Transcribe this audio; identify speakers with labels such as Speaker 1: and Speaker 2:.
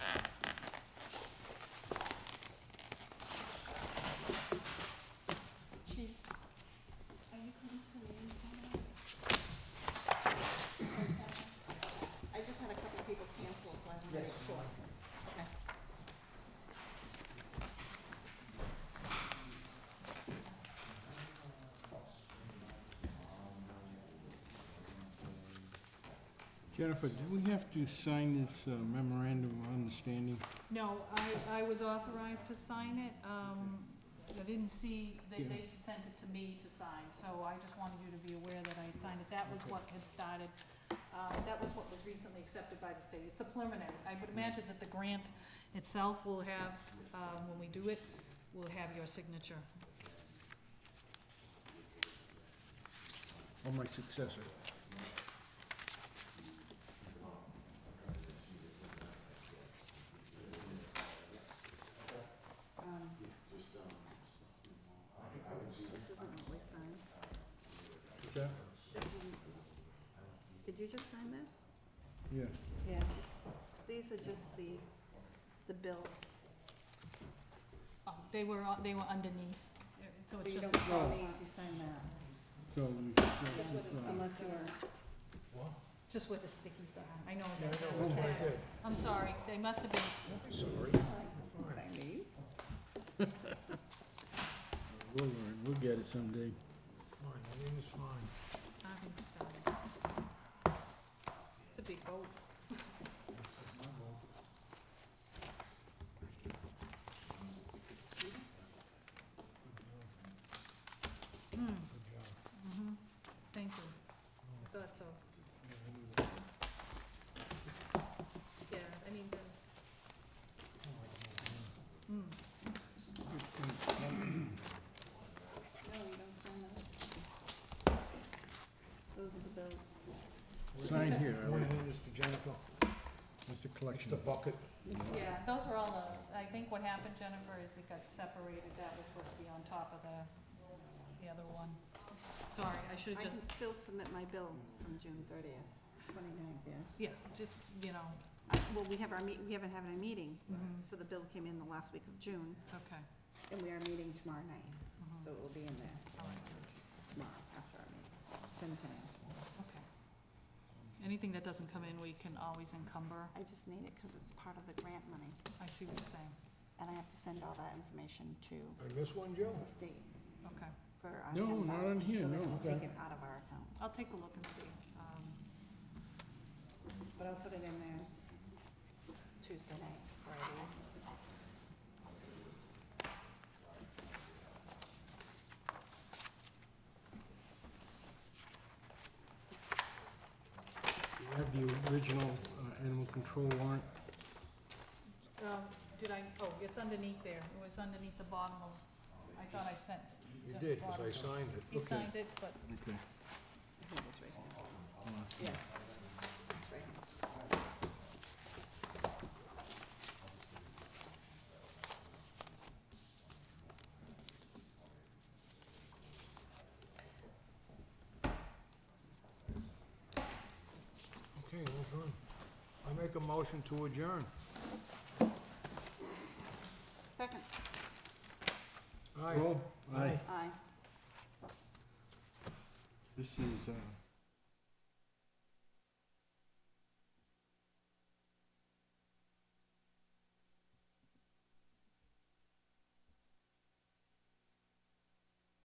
Speaker 1: Jennifer, do we have to sign this uh, memorandum of understanding?
Speaker 2: No, I, I was authorized to sign it, um, I didn't see, they, they sent it to me to sign, so I just wanted you to be aware that I had signed it, that was
Speaker 1: Okay.
Speaker 2: what had started, uh, that was what was recently accepted by the state, it's the preliminary, I would imagine that the grant itself will have, um, when we do it, will have your signature.
Speaker 1: Or my successor?
Speaker 3: Um, This isn't what we signed.
Speaker 1: Is that?
Speaker 3: This isn't. Did you just sign that?
Speaker 1: Yeah.
Speaker 3: Yeah. These are just the, the bills.
Speaker 2: Oh, they were, on- they were underneath, uh, so
Speaker 3: So
Speaker 2: it's
Speaker 3: you
Speaker 2: just,
Speaker 3: don't sign
Speaker 1: Oh.
Speaker 3: these, you sign that.
Speaker 1: So, we- this is, uh,
Speaker 3: Unless you're,
Speaker 2: just where the stickies are, I know that's what was sad. I'm sorry, they must have been,
Speaker 3: sign these.
Speaker 1: we'll, learn. we'll get it someday.
Speaker 2: I think so. It's a big boat. Hmm. Mhm. Thank you. I thought so. Yeah, I mean, the. Hmm.
Speaker 3: No, you don't sign those. Those are the bills.
Speaker 1: Sign here, I
Speaker 4: One
Speaker 1: like,
Speaker 4: hand is to Jennifer,
Speaker 1: that's the
Speaker 4: it's
Speaker 1: collection.
Speaker 4: the bucket.
Speaker 2: Yeah, those were all the, I think what happened, Jennifer, is it got separated, that was supposed to be on top of the, the other one. Sorry, I
Speaker 3: I
Speaker 2: should've
Speaker 3: can
Speaker 2: just,
Speaker 3: still submit my bill from June thirtieth, twenty-ninth, yeah.
Speaker 2: yeah, just, you know,
Speaker 3: Well, we have our meet, we haven't had a meeting,
Speaker 2: mhm,
Speaker 3: so the bill came in the last week of June,
Speaker 2: okay,
Speaker 3: and we are meeting tomorrow night,
Speaker 2: mhm,
Speaker 3: so it will be in there
Speaker 2: all right,
Speaker 3: tomorrow after our meeting, ten ten.
Speaker 2: okay. Anything that doesn't come in, we can always encumber,
Speaker 3: I just need it because it's part of the grant money,
Speaker 2: I see what you're saying,
Speaker 3: and I have to send all that information to
Speaker 4: I missed one, Joe?
Speaker 3: the state
Speaker 2: okay.
Speaker 3: for our ten
Speaker 1: No,
Speaker 3: thousand.
Speaker 1: not on here, no,
Speaker 3: So they can
Speaker 1: okay.
Speaker 3: take it out of our account,
Speaker 2: I'll take a look and see, um,
Speaker 3: but I'll put it in there Tuesday night, Friday.
Speaker 1: We have the original uh, animal control warrant.
Speaker 2: um, did I, oh, it's underneath there, it was underneath the bottom of, I thought I sent,
Speaker 4: You did, because I signed it.
Speaker 2: he signed it, but
Speaker 1: Okay. Uh,
Speaker 3: I think it's right here. Yeah. Right here.
Speaker 4: Okay, well done. I make a motion to adjourn.
Speaker 3: Second,
Speaker 4: Aye.
Speaker 1: Roll? Aye.
Speaker 3: aye.
Speaker 1: This is, uh,